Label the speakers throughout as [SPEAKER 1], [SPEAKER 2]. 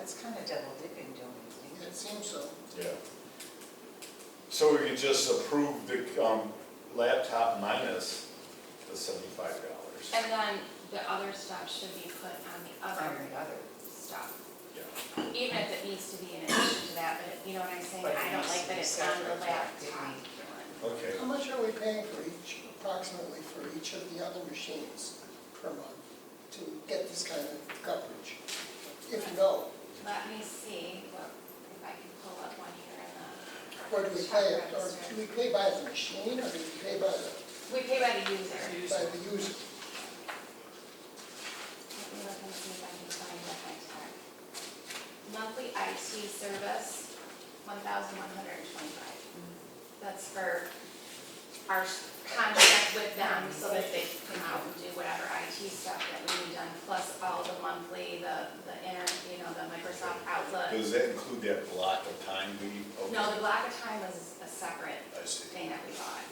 [SPEAKER 1] it's kind of double dipping, don't you think?
[SPEAKER 2] It seems so.
[SPEAKER 3] Yeah. So we could just approve the um, laptop minus the seventy-five dollars.
[SPEAKER 4] And then the other stuff should be put on the
[SPEAKER 1] On
[SPEAKER 4] other
[SPEAKER 1] the other.
[SPEAKER 4] stuff.
[SPEAKER 3] Yeah.
[SPEAKER 4] Even if it needs to be in addition to that, but you know what I'm saying?
[SPEAKER 1] But it
[SPEAKER 4] I don't
[SPEAKER 1] needs to
[SPEAKER 4] like that
[SPEAKER 1] be
[SPEAKER 4] it's on the
[SPEAKER 1] separate, yeah, it
[SPEAKER 4] laptop.
[SPEAKER 1] needs
[SPEAKER 3] Okay,
[SPEAKER 2] How much are we paying for each, approximately for each of the other machines per month to get this kind of coverage? If you know,
[SPEAKER 4] Let me see what, if I can pull up one here uh, in the,
[SPEAKER 2] where do we pay it? Or do we pay by the machine or do we pay by the,
[SPEAKER 4] we pay by the user. Let me
[SPEAKER 2] by the user?
[SPEAKER 4] look and see if I can find what I typed. Monthly IT service, one thousand one hundred and twenty-five. That's for our s- contract with them, so that they can come out and do whatever IT stuff that we need done, plus all the monthly, the, the inter, you know, the Microsoft Outlook.
[SPEAKER 3] does that include that block of time we?
[SPEAKER 4] No, the block of time was a separate
[SPEAKER 3] I see.
[SPEAKER 4] thing that we bought.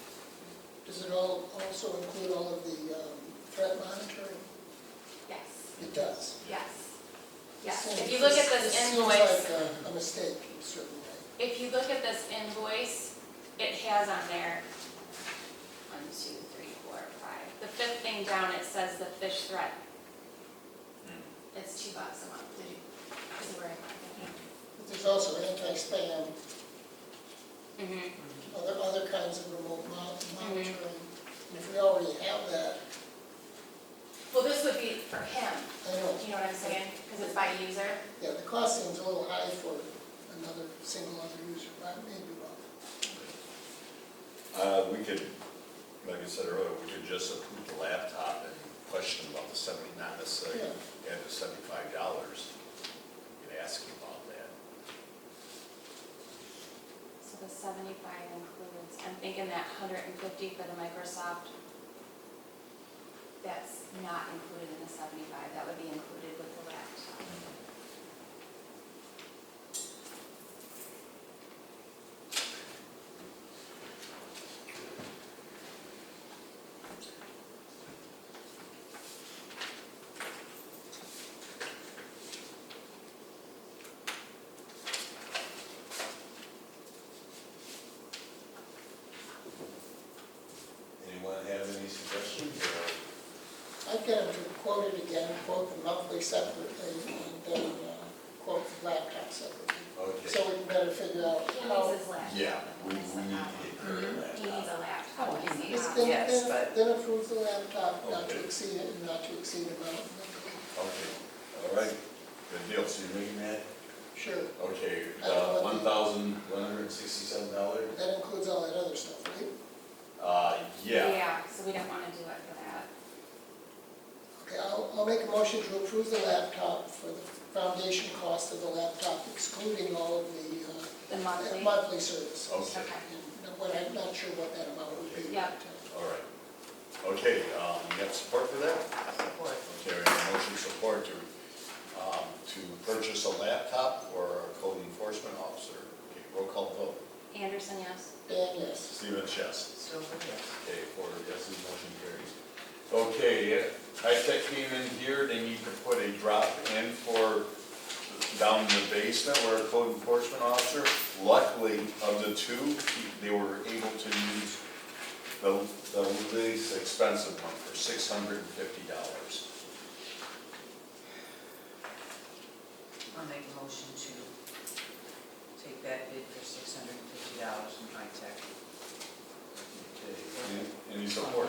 [SPEAKER 2] Does it all, also include all of the um, threat monitoring?
[SPEAKER 4] Yes,
[SPEAKER 2] It does.
[SPEAKER 4] yes, yes.
[SPEAKER 2] So
[SPEAKER 4] If you look at this invoice,
[SPEAKER 2] Seems like a- a mistake in a certain way.
[SPEAKER 4] If you look at this invoice, it has on there, one, two, three, four, five. The fifth thing down, it says the fish threat. It's two bucks a month, did you? Is it where I
[SPEAKER 2] But there's also anti-spam,
[SPEAKER 4] marked it?
[SPEAKER 2] other, other kinds of remote mon- monitoring. And if we already have that,
[SPEAKER 4] Well, this would be for him,
[SPEAKER 2] I know,
[SPEAKER 4] you know what I'm saying? Because it's by user.
[SPEAKER 2] yeah, the cost seems a little high for another, single other user, but I may be wrong.
[SPEAKER 3] Uh, we could, like I said earlier, we could just approve the laptop and question about the seventy-nine, the six,
[SPEAKER 2] Yeah.
[SPEAKER 3] and the seventy-five dollars. You could ask him about that.
[SPEAKER 4] So the seventy-five includes, I'm thinking that hundred and fifty for the Microsoft. That's not included in the seventy-five, that would be included with the laptop.
[SPEAKER 3] Anyone have any suggestions? or-
[SPEAKER 2] I'd get them to quote it again, quote the monthly separately, and then uh, quote the laptop separately.
[SPEAKER 3] Okay.
[SPEAKER 2] So we can better figure out
[SPEAKER 4] He
[SPEAKER 2] how.
[SPEAKER 4] needs his laptop.
[SPEAKER 3] Yeah, we, we need
[SPEAKER 4] That's
[SPEAKER 3] to
[SPEAKER 4] the problem.
[SPEAKER 3] get rid of the
[SPEAKER 4] He needs
[SPEAKER 3] laptop.
[SPEAKER 4] a laptop.
[SPEAKER 1] Oh, he
[SPEAKER 4] He's
[SPEAKER 1] needs
[SPEAKER 4] not-
[SPEAKER 2] Then-
[SPEAKER 1] Yes,
[SPEAKER 2] then-
[SPEAKER 1] but-
[SPEAKER 2] Then approve the laptop, not to
[SPEAKER 3] Okay.
[SPEAKER 2] exceed it, and not to exceed amount.
[SPEAKER 3] Okay, all right, good deal, so you're making that,
[SPEAKER 2] Sure,
[SPEAKER 3] okay,
[SPEAKER 2] Uh,
[SPEAKER 3] one thousand one hundred and sixty-seven dollars?
[SPEAKER 2] that includes all that other stuff, right?
[SPEAKER 3] Uh, yeah,
[SPEAKER 4] Yeah, so we don't wanna do it for that.
[SPEAKER 2] Okay, I'll, I'll make a motion to approve the laptop for the foundation cost of the laptop excluding all of the
[SPEAKER 4] The
[SPEAKER 2] uh,
[SPEAKER 4] monthly,
[SPEAKER 2] monthly services.
[SPEAKER 3] okay,
[SPEAKER 2] And what- I'm not sure what that amount would be.
[SPEAKER 4] Yeah.
[SPEAKER 3] all right. Okay, um, you have support for that?
[SPEAKER 1] Support.
[SPEAKER 3] Okay, we have a motion support to, um, to purchase a laptop or a code enforcement officer. Okay, roll call vote,
[SPEAKER 4] Anderson, yes.
[SPEAKER 2] Dan, yes.
[SPEAKER 3] Stephen Chess.
[SPEAKER 1] Silver, yes.
[SPEAKER 3] Okay, four yeses, motion carries. Okay, Tech came in here, they need to put a drop in for down in the basement where a code enforcement officer. Luckily, of the two, he- they were able to use the, the least expensive one for six hundred and fifty dollars.
[SPEAKER 1] I'll make a motion to take that bid for six hundred and fifty dollars from High Tech.
[SPEAKER 3] Any support?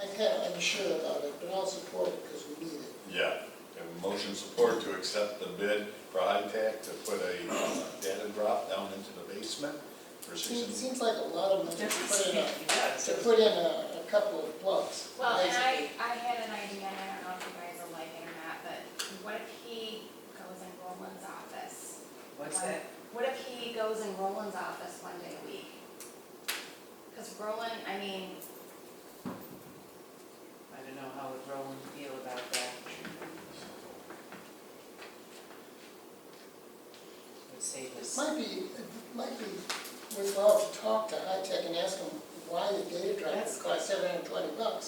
[SPEAKER 2] I'm kind of unsure about it, but I'll support it because we need it.
[SPEAKER 3] Yeah, we have a motion support to accept the bid for Tech to put a uh, data drop down into the basement for six
[SPEAKER 2] Seems,
[SPEAKER 3] hundred.
[SPEAKER 2] seems like a lot of money to put in a, to
[SPEAKER 1] Yes.
[SPEAKER 2] put in a, a couple of plugs.
[SPEAKER 4] Well, and I, I had an idea, and I don't know if you guys will like it or not, but what if he goes in Roland's office?
[SPEAKER 1] What's
[SPEAKER 4] One-
[SPEAKER 1] that?
[SPEAKER 4] What if he goes in Roland's office one day a week? Cause Roland, I mean,
[SPEAKER 1] I don't know how would Roland feel about that. Would save us.
[SPEAKER 2] Might be, it might be worthwhile to talk to High Tech and ask them why the data drive
[SPEAKER 1] That's-
[SPEAKER 2] would cost seven hundred and twenty bucks.